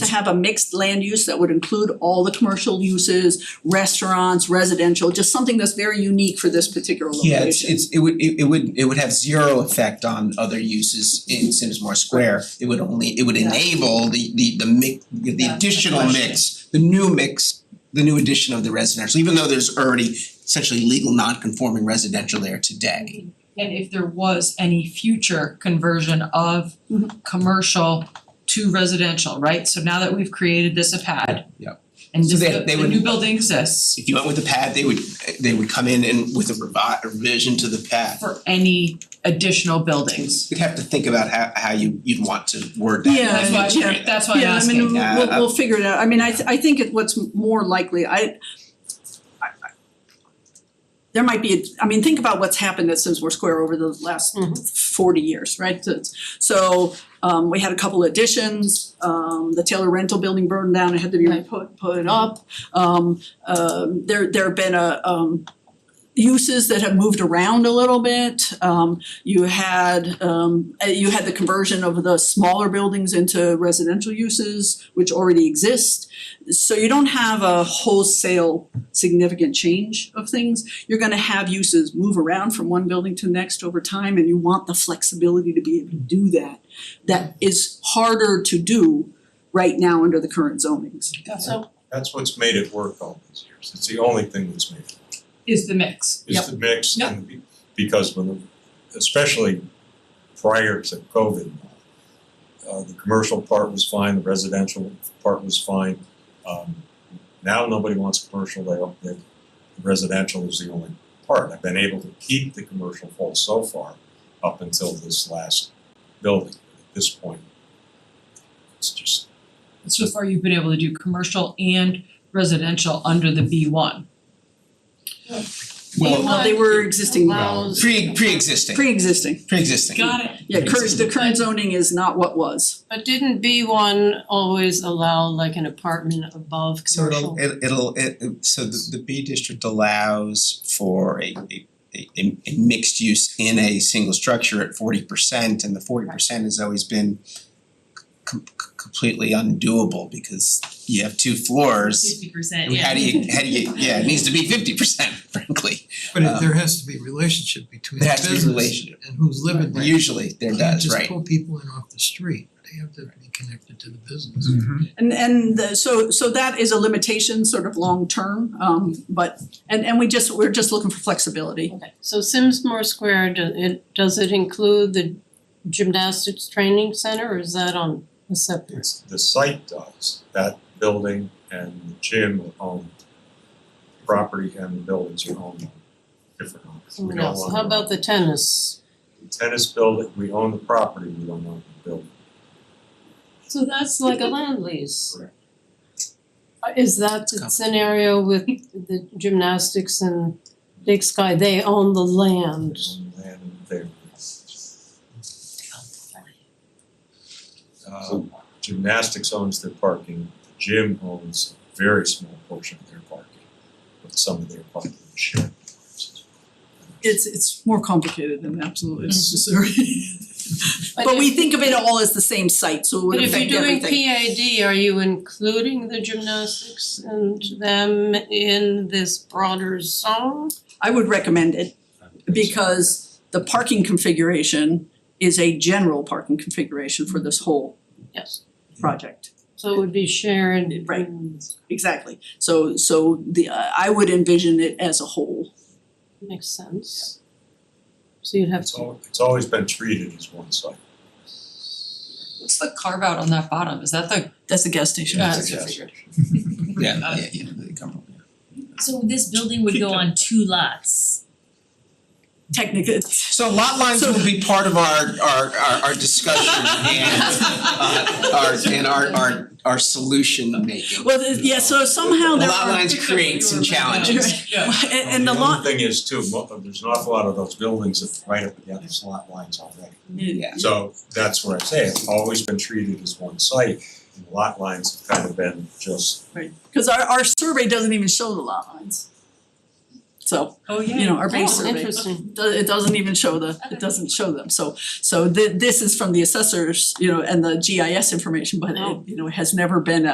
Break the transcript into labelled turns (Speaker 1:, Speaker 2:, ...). Speaker 1: to have a mixed land use that would include all the commercial uses, restaurants, residential, just something that's very unique for this particular location.
Speaker 2: Yeah, it's it's it would it it would it would have zero effect on other uses in Simsmore Square. It would only, it would
Speaker 1: Yeah.
Speaker 2: enable the the the mix, the
Speaker 1: the
Speaker 2: additional
Speaker 1: question.
Speaker 2: mix, the new mix, the new addition of the residential, even though there's already essentially legal non-conforming residential there today.
Speaker 3: And if there was any future conversion of
Speaker 4: Mm-hmm.
Speaker 1: Mhm.
Speaker 3: commercial to residential, right? So now that we've created this a pad.
Speaker 2: Yep.
Speaker 3: And
Speaker 2: So
Speaker 3: this-
Speaker 2: they-
Speaker 3: the
Speaker 2: they
Speaker 3: the
Speaker 2: would-
Speaker 3: new building exists
Speaker 2: If you went with the pad, they would they would come in and with a revi- revision to the pad.
Speaker 3: for any additional buildings.
Speaker 2: You'd have to think about how how you you'd want to word that.
Speaker 1: Yeah,
Speaker 3: That's
Speaker 1: I
Speaker 3: why,
Speaker 1: mean,
Speaker 3: yeah, that's why I'm
Speaker 1: Yeah, I mean,
Speaker 3: asking.
Speaker 2: Yeah,
Speaker 1: we'll
Speaker 2: I-
Speaker 1: we'll figure it out, I mean, I th- I think it what's more likely, I I- I- there might be, I mean, think about what's happened at Simsmore Square over the last
Speaker 3: Mm-hmm.
Speaker 1: forty years, right? So it's- So um we had a couple additions, um the Taylor Rental Building burned down, it had to be
Speaker 3: Right.
Speaker 1: put put up. Um um there there have been a um uses that have moved around a little bit. Um you had um uh, you had the conversion of the smaller buildings into residential uses, which already exist. So you don't have a wholesale significant change of things. You're gonna have uses move around from one building to the next over time and you want the flexibility to be able to do that. That is harder to do right now under the current zonings.
Speaker 3: So
Speaker 5: That's what's made it work all these years. It's the only thing that's made it,
Speaker 3: is the mix.
Speaker 5: is the mix
Speaker 3: Yep.
Speaker 5: and be- because when, the- especially prior to COVID, uh, the commercial part was fine, the residential part was fine. Um, now nobody wants commercial, they don't, they, residential is the only part. I've been able to keep the commercial full so far up until this last building. At this point, it's just,
Speaker 3: So far, you've been able to do commercial and residential under the B one.
Speaker 2: Well,
Speaker 1: Well, they were existing,
Speaker 4: Allows-
Speaker 2: pre pre-existing,
Speaker 1: pre-existing.
Speaker 2: pre-existing.
Speaker 3: Got it.
Speaker 1: Yeah, current, the current zoning is not what was.
Speaker 4: But didn't B one always allow like an apartment above
Speaker 2: So
Speaker 4: commercial?
Speaker 2: it'll it- it'll it it- so the the B district allows for a a a a mixed use in a single structure at forty percent and the forty percent has always been com- c- completely undoable because you have two floors.
Speaker 6: Fifty percent,
Speaker 2: And
Speaker 6: yeah.
Speaker 2: how do you how do you yeah, it needs to be fifty percent frankly.
Speaker 7: But
Speaker 2: Um,
Speaker 7: it- there has to be relationship between
Speaker 2: There
Speaker 7: the
Speaker 2: has to be
Speaker 7: business
Speaker 2: relationship.
Speaker 7: and who's living there.
Speaker 2: Usually there
Speaker 7: You
Speaker 2: does,
Speaker 7: just
Speaker 2: right?
Speaker 7: pull people in off the street, they have to be connected to the business.
Speaker 1: And and the- so so that is a limitation sort of long-term, um but and and we just, we're just looking for flexibility.
Speaker 4: Okay, so Simsmore Square, do it does it include the gymnastics training center or is that on a separate?
Speaker 5: It's the site does, that building and the gym are owned. Property and the buildings are owned by different owners. We
Speaker 4: Someone
Speaker 5: don't
Speaker 4: else,
Speaker 5: own
Speaker 4: how about the tennis?
Speaker 5: Tennis building, we own the property, we don't own the building.
Speaker 4: So that's like a land lease.
Speaker 5: Correct.
Speaker 4: Uh, Is that the scenario with the gymnastics and Big Sky, they own the land?
Speaker 5: We own the land and they- Uh, Gymnastics owns their parking, the gym owns a very small portion of their parking, but some of their parking is shared.
Speaker 1: It's it's more complicated than absolutely necessary. But
Speaker 4: Mm-hmm. if-
Speaker 1: we think of it all as the same site, so it would
Speaker 4: But if
Speaker 1: affect
Speaker 4: you're doing
Speaker 1: everything.
Speaker 4: PAD, are you including the gymnastics and them in this broader zone?
Speaker 1: I would recommend it because the parking configuration is a general parking configuration for this whole
Speaker 4: Yes,
Speaker 1: project.
Speaker 4: so it would be shared.
Speaker 1: Right. Exactly. So so the I would envision it as a whole.
Speaker 4: Makes sense. So you'd have
Speaker 5: It's
Speaker 4: to,
Speaker 5: al- it's always been treated as one site.
Speaker 3: What's the carve out on that bottom? Is that the?
Speaker 1: That's the gas station.
Speaker 3: Yeah.
Speaker 5: It's a gas station.
Speaker 2: Yeah, yeah, yeah, they come
Speaker 6: So this building would go on two lots.
Speaker 1: Technically,
Speaker 2: So lot lines
Speaker 1: So-
Speaker 2: will be part of our our our our discussion and uh our and our our our solution making.
Speaker 1: well, th- yeah, so somehow there
Speaker 2: Lot
Speaker 1: are. "Oh,
Speaker 2: lines create some challenges.
Speaker 1: And and the lot,
Speaker 5: other thing is too, mo- there's an awful lot of those buildings that right up against lot lines already.
Speaker 2: Yeah.
Speaker 5: So that's what I'm saying, it's always been treated as one site, and lot lines have kind of been just
Speaker 1: right, cause our our survey doesn't even show the lot lines. so,
Speaker 3: Oh, yeah.
Speaker 1: you know, our base
Speaker 4: Oh,
Speaker 1: survey.
Speaker 4: interesting.
Speaker 1: do- it doesn't even show the,
Speaker 6: Okay.
Speaker 1: it doesn't show them, so so thi- this is from the assessors, you know, and the GIS information, but
Speaker 4: Oh.
Speaker 1: it, you know, has never been a